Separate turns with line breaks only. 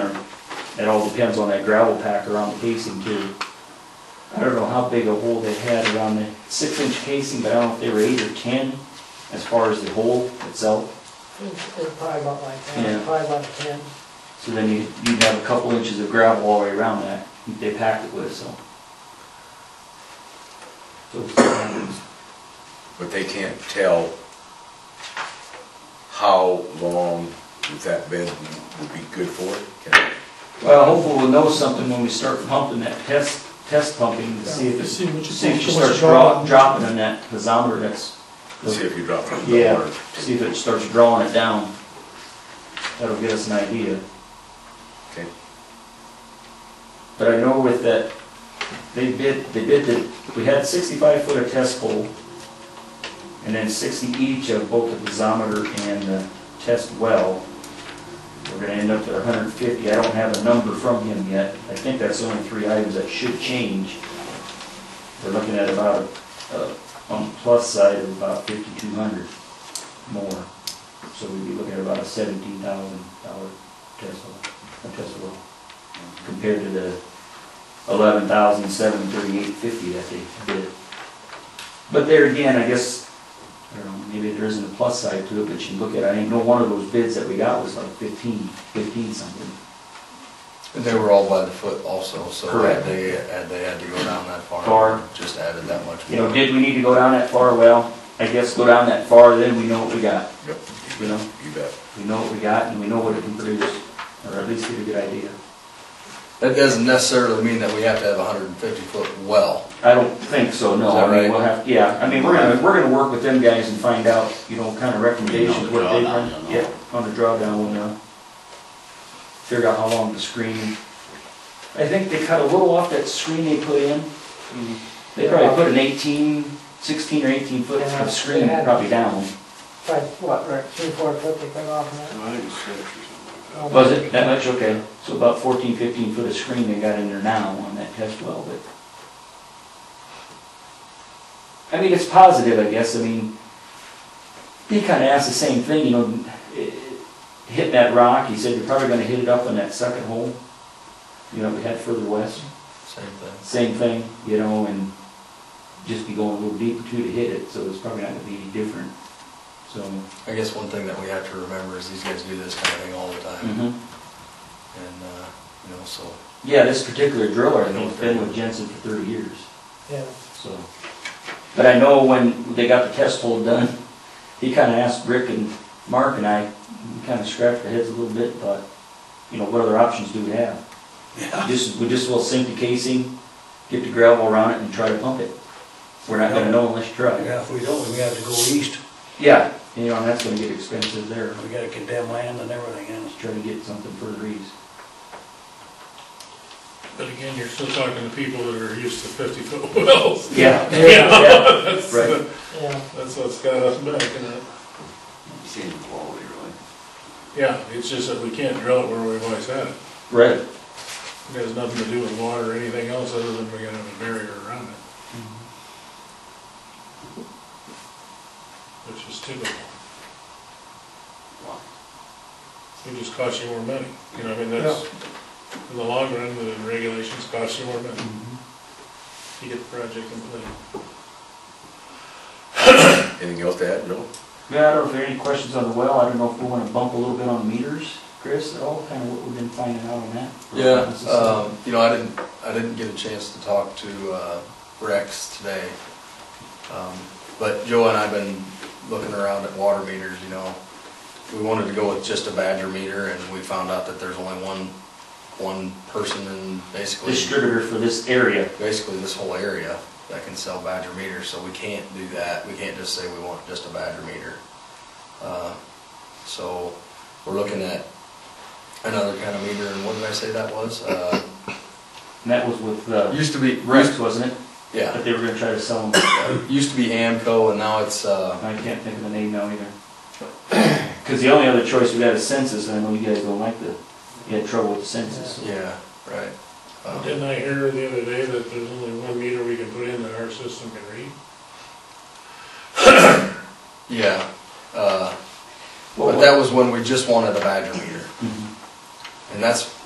or it all depends on that gravel pack around the casing too. I don't know how big a hole they had around the six inch casing, but I don't know if they were eight or ten as far as the hole itself.
It's it's probably about like
Yeah.
that, probably about a ten.
So then you, you'd have a couple inches of gravel all the way around that they packed it with, so. So,
But they can't tell how long that bed would be good for? Can-
Well, hopefully we'll know something when we start pumping that test, test pumping to see if it's,
See what you-
see if she
what you
starts
draw.
dro- dropping in that piezometer that's.
Let's see if you drop it in the
Yeah,
water.
see if it starts drawing it down. That'll give us an idea.
Okay.
But I know with that, they bid, they bid that, we had sixty-five foot of test hole, and then sixty each of both the piezometer and the test well. We're gonna end up at hundred and fifty, I don't have a number from him yet, I think that's the only three items that should change. We're looking at about, uh, on the plus side of about fifty-two hundred more, so we'd be looking at about a seventeen thousand dollar test hole, a test well compared to the eleven thousand seven thirty-eight fifty that they bid. But there again, I guess, I don't know, maybe there isn't a plus side to it, but you look at, I think no one of those bids that we got was like fifteen, fifteen something.
And They were all by the foot also, so
Correct.
had they, had they had to go down that far.
Far.
Just added that much.
You know, did we need to go down that far? Well, I guess go down that far, then we know what we got,
Yep,
you know?
you bet.
We know what we got and we know what it can produce, or at least get a good idea.
That doesn't necessarily mean that we have to have a hundred and fifty foot well.
I don't think so, no.
Is that
I mean, we'll
right?
have, yeah, I mean, we're gonna, we're gonna work with them guys and find out, you know, kind of recommendations, what they run. Yeah, on the drawdown, we'll know. uh, Figure out how long the screen. I think they cut a little off that screen they put in. They probably put an eighteen, sixteen or eighteen foot
Yeah,
of screen
they had-
probably down.
Probably, what, right, three, four foot they cut off of
I think it's six or something
that.
like
Was it that much? Okay. So about 14, 15 foot of screen they got in there now on that test well, but. I mean, it's positive, I guess. I mean, he kind of asked the same thing, you know, eh, hitting that rock, he said, you're probably gonna hit it up in that second hole. You know, we had further west,
Same thing.
same thing, you know, and just be going a little deeper too to hit it, so it's probably not gonna be any different, so.
I guess one thing that we have to remember is these guys do this kind of thing all the time. And,
mhm.
uh, you know, so
Yeah, this particular driller, I think, has been with Jensen for thirty years,
Yeah,
so. But I know when they got the test hole done, he kinda asked Rick and Mark and I, we kinda scratched our heads a little bit, but, you know, what other options do we have? Just, we just will sink the casing, get the gravel around it and try to pump it. We're not gonna know unless you try.
Yeah, if we don't, we have to go east,
Yeah, you know, and that's gonna get expensive there,
we gotta condemn land and everything else.
try to get something further east.
But again, you're still talking to people that are used to fifty-foot wells.
Yeah.
Yeah.
Yeah, right.
yeah.
That's what's got us back in it.
Same quality, really.
Yeah, it's just that we can't drill it where we've always had it.
Right.
It has nothing to do with water or anything else other than we're gonna have a barrier around it. Which is typical. It just costs you more money, you know, I mean, that's, in the long run, the regulations cost you more money.
Mm-hmm.
You get the project complete.
Anything else to add? No?
Yeah, I don't know if there are any questions on the well, I don't know if we wanna bump a little bit on meters, Chris, at all, kinda what we've been finding out on that.
Yeah, um, you know, I didn't, I didn't get a chance to talk to, uh, Rex today. Um, But Joe and I've been looking around at water meters, you know. We wanted to go with just a Badger meter and we found out that there's only one, one person in basically,
Distributor for this area,
basically this whole area that can sell Badger meters, so we can't do that. We can't just say we want just a Badger meter. Uh, So we're looking at another kind of meter and what did I say that was? Uh,
and that was with, uh,
Used to be
Rex, wasn't it?
Yeah,
That they were gonna try to sell them,
it used to be Amco, and now it's uh,
I can't think of the name now either. Cause the only other choice we got is census, and I know you guys don't like the, you had trouble with the census.
yeah, right. Um,
Uh, Didn't I hear the other day that there's only one meter we can put in that our system can read?
yeah, uh,
What
but that was when we just wanted a Badger meter,
Mhm.
and that's